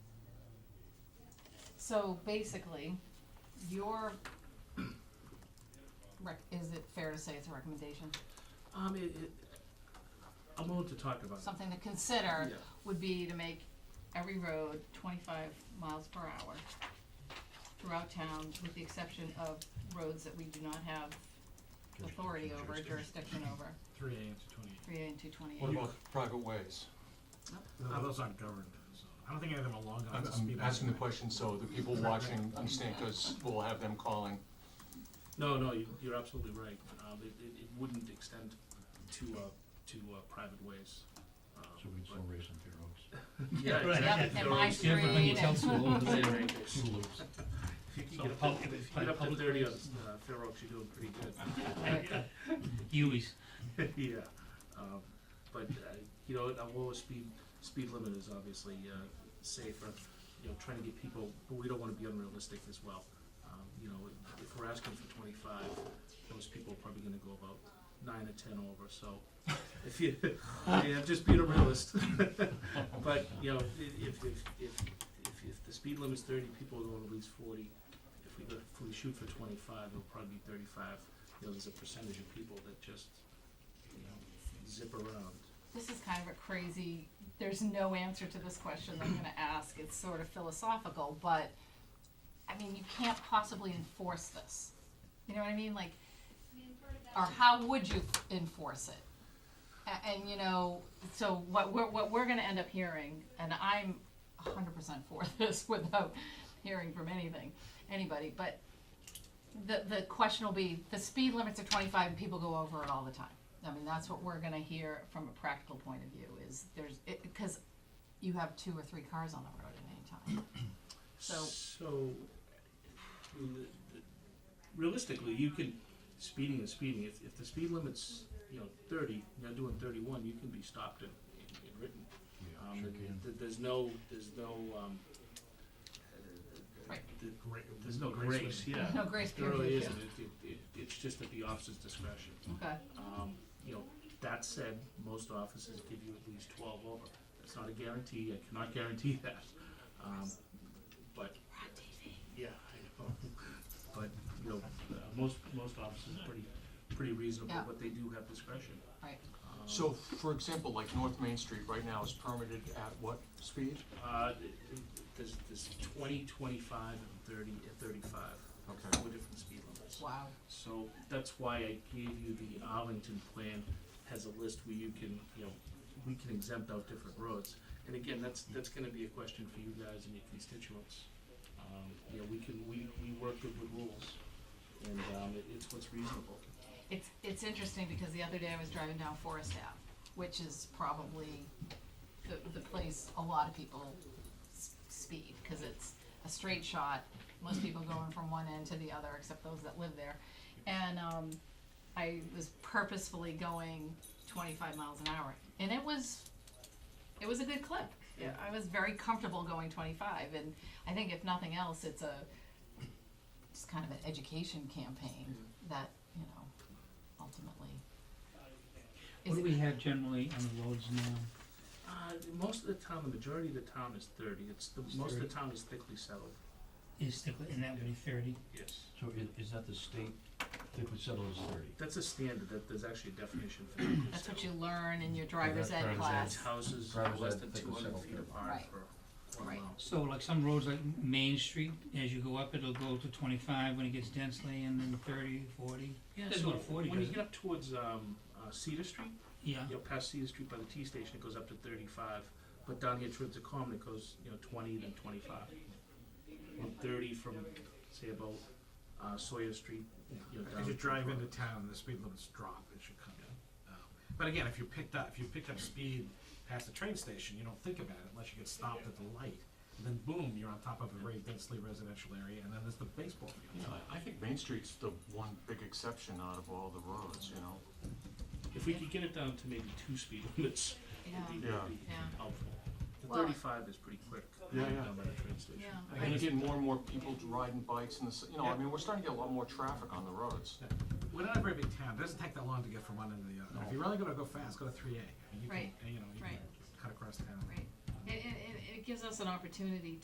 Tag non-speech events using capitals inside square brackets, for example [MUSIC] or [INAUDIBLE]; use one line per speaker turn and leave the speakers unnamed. So basically, your, rec- is it fair to say it's a recommendation?
Um, it, it, I'm willing to talk about it.
Something to consider
Yeah.
would be to make every road twenty-five miles per hour throughout town, with the exception of roads that we do not have authority over, jurisdiction over,
Three AM to twenty.
three and two twenty-eight.
What about private ways?
No,
Uh, those aren't governed, so I don't think any of them are long enough
I'm,
to speed
I'm
up.
asking the question so the people watching understand, cause we'll have them calling.
No, no, you, you're absolutely right. Um, it, it, it wouldn't extend to, uh, to, uh, private ways. Um,
So we just
but-
don't raise them to your
Yeah,
oaks.
exactly.
Yep, and my
Yeah, but
street, and-
Two
[LAUGHS]
loops.
So if you get up to thirty on, uh, Fair Oaks, you're doing pretty good.
Huey's.
Yeah, um, but, uh, you know, a lower speed, speed limit is obviously, uh, safer, you know, trying to get people, but we don't wanna be unrealistic as well. Um, you know, if we're asking for twenty-five, those people are probably gonna go about nine or ten over, so [LAUGHS] if you, yeah, just being a realist. [LAUGHS] But, you know, i- if, if, if, if, if the speed limit's thirty, people are going at least forty. If we go, if we shoot for twenty-five, it'll probably be thirty-five. You know, there's a percentage of people that just, you know, zip around.
This is kind of a crazy, there's no answer to this question that I'm gonna ask, it's sort of philosophical, but, I mean, you can't possibly enforce this. You know what I mean, like, or how would you enforce it? A- and, you know, so what we're, what we're gonna end up hearing, and I'm hundred percent for [LAUGHS] this without hearing from anything, anybody, but the, the question will be, the speed limits are twenty-five and people go over it all the time. I mean, that's what we're gonna hear from a practical point of view, is there's, it, because you have two or three cars on the road at any time. So-
So, I mean, the- the- realistically, you can, speeding is speeding, if, if the speed limit's, you know, thirty, you're doing thirty-one, you can be stopped and, and and written.
Yeah,
Um,
sure
th-
can.
th- there's no, there's no, um, uh,
Right.
th- there's no
Grace
grace, yeah.
No grace
There really
period,
isn't, it, it, it, it's just at the officer's discretion.
Okay,
Um, you know, that said, most offices give you at least twelve over. That's not a guarantee, I cannot guarantee that. Um, but. Yeah, I know. But, you know, uh, most, most offices are pretty, pretty reasonable,
Yeah.
but they do have discretion.
right,
Um,
So, for example, like North Main Street right now is permitted at what speed?
Uh, th- th- there's, there's twenty, twenty-five, and thirty, and thirty-five,
Okay.
with different speed limits.
wow,
So that's why I gave you the Arlington plan has a list where you can, you know, we can exempt out different roads. And again, that's, that's gonna be a question for you guys and your constituents. Um, you know, we can, we, we work good with rules and, um, it, it's what's reasonable.
it's, it's interesting, because the other day I was driving down Forest Ave, which is probably the, the place a lot of people s- speed, cause it's a straight shot, most people going from one end to the other, except those that live there. And, um, I was purposefully going twenty-five miles an hour, and it was, it was a good clip. Yeah, I was very comfortable going twenty-five, and I think if nothing else, it's a, it's kind of an education campaign that, you know, ultimately. is
What do we have generally on the roads now?
Uh, most of the town, the majority of the town is thirty, it's, the,
It's
most of the
30.
town is thickly settled.
Is thickly, and that would be thirty?
Yes.
So i- is that the state, thickly settled is thirty?
That's a standard, that, there's actually a
[CLEARS THROAT]
definition for thickly settled.
That's what you learn in your driver's
that's
ed
driver's ed.
class.
It's houses
Drivers
less
that
than two
thickly
hundred
settled
feet
people.
apart
Right.
for one
Right.
mile.
So like some roads like Main Street, as you go up, it'll go to twenty-five when it gets densely, and then thirty, forty.
Yeah,
Doesn't
so
go to 40,
when you
does it?
get up towards um, uh, Cedar Street,
Yeah,
you know, past Cedar Street by the T station, it goes up to 35. But down here towards the common, it goes, you know, 20, then 25. And 30 from, say, about uh, Sawyer Street, you know, down.
As you
to
drive
Brook.
into town, the speed limits drop, it should come down. Um, But again, if you picked up, if you picked up speed past the train station, you don't think about it unless you get stopped at the light. And Then boom, you're on top of a very densely residential area, and then there's the baseball
You
field.
know, I I think Main Street's the one big exception out of all the roads, you know?
If we could get it down to maybe two speed limits,
Yeah,
it'd be,
Yeah.
it'd be
Yeah.
helpful. The
Well-
35 is pretty quick.
Yeah, yeah.
Down by the train station.
yeah.
And you're getting more and more people riding bikes and this, you know, I mean, we're starting to get a lot more traffic on the roads.
We're not a very big town, it doesn't take that long to get from one end to the other. If
No.
you're really gonna go fast, go to three A, and you can,
Right.
and, you know, you can
Right.
cut across town.
Right. It, it, it- it gives us an opportunity